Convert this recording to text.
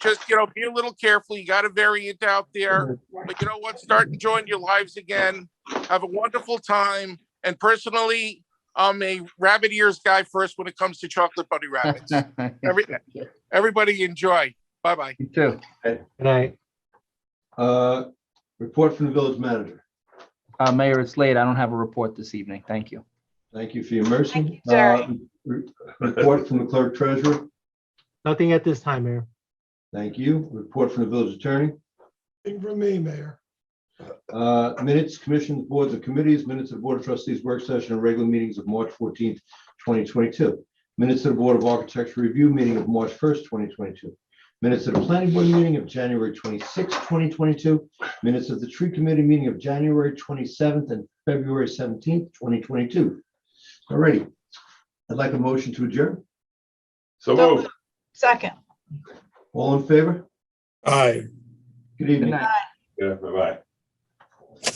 just, you know, be a little careful. You got a variant out there. But you know what? Start enjoying your lives again. Have a wonderful time. And personally, I'm a rabbit ears guy first when it comes to chocolate bunny rabbits. Every, everybody enjoy. Bye bye. You too. Good night. Uh, Report from the village manager. Uh, Mayor, it's late. I don't have a report this evening. Thank you. Thank you for your mercy. Thank you, Jerry. Uh, re- Report from the clerk treasurer. Nothing at this time, Mayor. Thank you. Report from the village attorney. Thing from me, Mayor. Uh, Minutes, commissions, boards of committees, minutes of board of trustees, work session, and regular meetings of March fourteenth, twenty twenty-two. Minutes of the Board of Architecture Review meeting of March first, twenty twenty-two. Minutes of the Planning Board meeting of January twenty-sixth, twenty twenty-two. Minutes of the Tree Committee meeting of January twenty-seventh and February seventeenth, twenty twenty-two. All righty. I'd like a motion to adjourn. So move. Second. All in favor? Aye. Good evening. night. Yeah, bye-bye.